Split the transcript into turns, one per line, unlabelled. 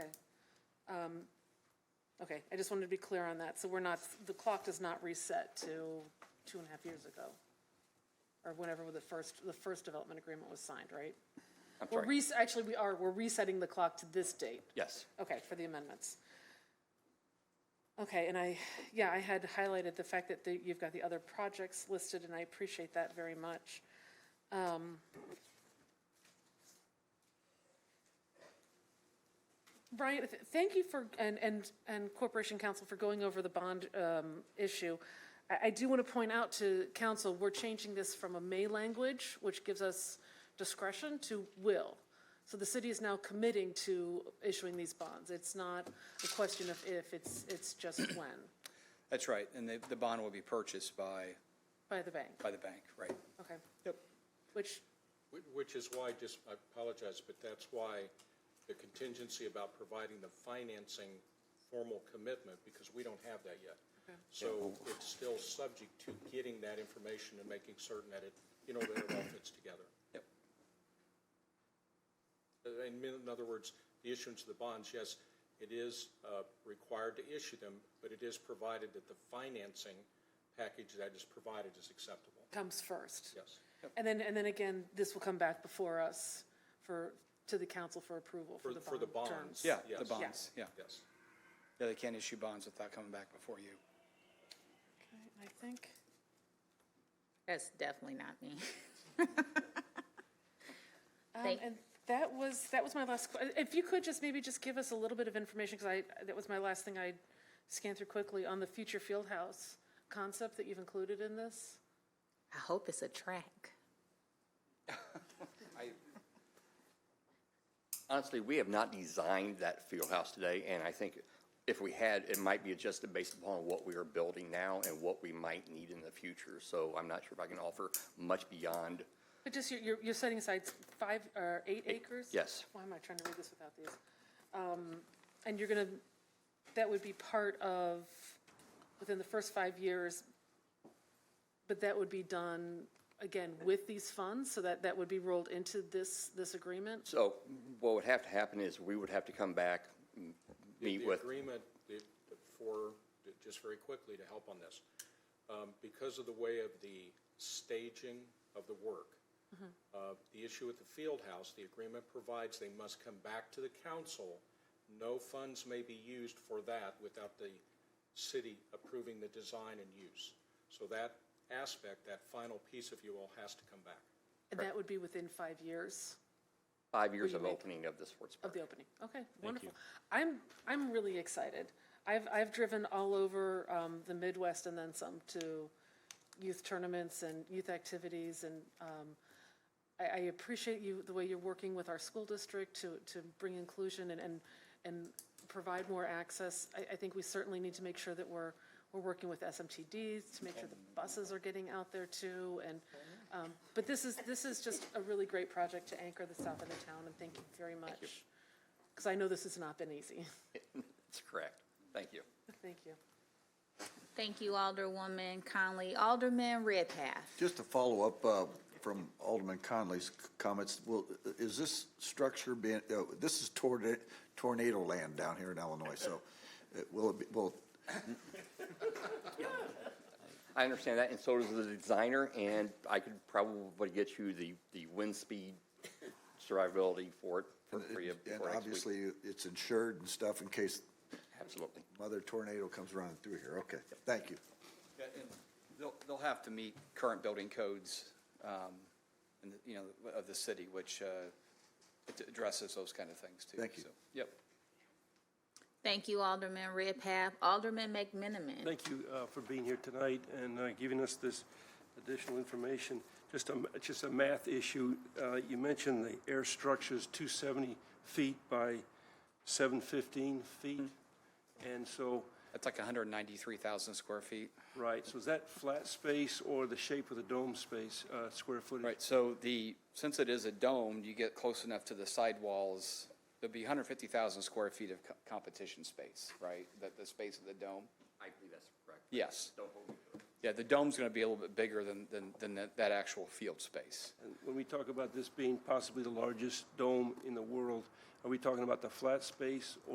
Um, Okay, I just wanted to be clear on that. So we're not, the clock does not reset to two and a half years ago, or whenever the first, the first development agreement was signed, right?
I'm
We're
sorry.
res- Actually, we are, we're resetting the clock to this date.
Yes.
Okay, for the amendments. Okay, and I, yeah, I had highlighted the fact that the- you've got the other projects listed, and I appreciate that very much. Um, Brian, th- thank you for, and, and, and Corporation Council for going over the bond um, issue. I, I do want to point out to council, we're changing this from a may language, which gives us discretion, to will. So the city is now committing to issuing these bonds. It's not a question of if, it's, it's just when,
That's right, and the, the bond will be purchased by,
by the bank,
by the bank, right?
okay?
Yep.
Which,
Wh- Which is why, just, I apologize, but that's why the contingency about providing the financing formal commitment, because we don't have that yet. So it's still subject to getting that information and making certain that it, you know, that it all fits together.
Yep.
Uh, In min- in other words, the issuance of the bonds, yes, it is uh, required to issue them, but it is provided that the financing package that is provided is acceptable.
comes first.
Yes.
And then, and then again, this will come back before us for, to the council for approval for
For-
the
for the
bond terms.
bonds.
Yeah, the
Yes.
bonds, yeah.
Yes.
Yeah, they can't issue bonds without coming back before you.
I think,
That's definitely not me.
um,
Thank-
and that was, that was my last, que- if you could just maybe just give us a little bit of information, because I, that was my last thing I scanned through quickly, on the future field house concept that you've included in this?
I hope it's a track.
Honestly, we have not designed that field house today, and I think if we had, it might be adjusted based upon what we are building now and what we might need in the future. So I'm not sure if I can offer much beyond,
But just, you're- you're, you're setting aside five, or eight acres?
yes.
Why am I trying to read this without these? Um, And you're gonna, that would be part of, within the first five years, but that would be done, again, with these funds, so that, that would be rolled into this, this agreement?
So what would have to happen is we would have to come back, m-
The-
meet with,
The agreement the- for, just very quickly to help on this, um, because of the way of the staging of the work, uh, the issue with the field house, the agreement provides they must come back to the council. No funds may be used for that without the city approving the design and use. So that aspect, that final piece, if you will, has to come back.
And that would be within five years
five years
you
of
make-
opening of the sports
of
park.
the opening? Okay, wonderful. I'm, I'm really excited. I've, I've driven all over um, the Midwest and then some to youth tournaments and youth activities, and um, I, I appreciate you, the way you're working with our school district to, to bring inclusion and, and, and provide more access. I, I think we certainly need to make sure that we're, we're working with SMTDs to make sure the buses are getting out there too, and, um, but this is, this is just a really great project to anchor the south end of town, and thank you very much. Because I know this has not been easy.
That's correct. Thank you.
Thank you.
Thank you, Alderwoman Conley. Alderman Redpath.
Just to follow up uh, from Alderman Conley's c- comments, will, is this structure being, uh, this is tornado, tornado land down here in Illinois, so uh, will it be, will,
I understand that, and so does the designer, and I could probably get you the, the wind speed survivability for it for free of-
and
for next week.
obviously it's insured and stuff in case
Absolutely.
mother tornado comes running through here. Okay, thank you.
Yeah, and They'll, they'll have to meet current building codes, um, and, you know, of the city, which, uh, it addresses those kind of things too.
Thank you.
so, Yep.
Thank you, Alderman Redpath. Alderman McMenamin.
Thank you uh, for being here tonight and uh, giving us this additional information. Just a, just a math issue. Uh, You mentioned the air structure's 270 feet by 715 feet. And so,
That's like hundred and ninety-three thousand square feet.
right, so is that flat space or the shape of the dome space, uh, square
Um,
footage?
Right, so the, since it is a dome, you get close enough to the sidewalls, there'll be 150,000 square feet of co- competition space, right? The, the space of the dome?
I believe that's correct.
Yes.
Don't hold me to it.
Yeah, the dome's going to be a little bit bigger than, than, than that- that actual field space.
And When we talk about this being possibly the largest dome in the world, are we talking about the flat space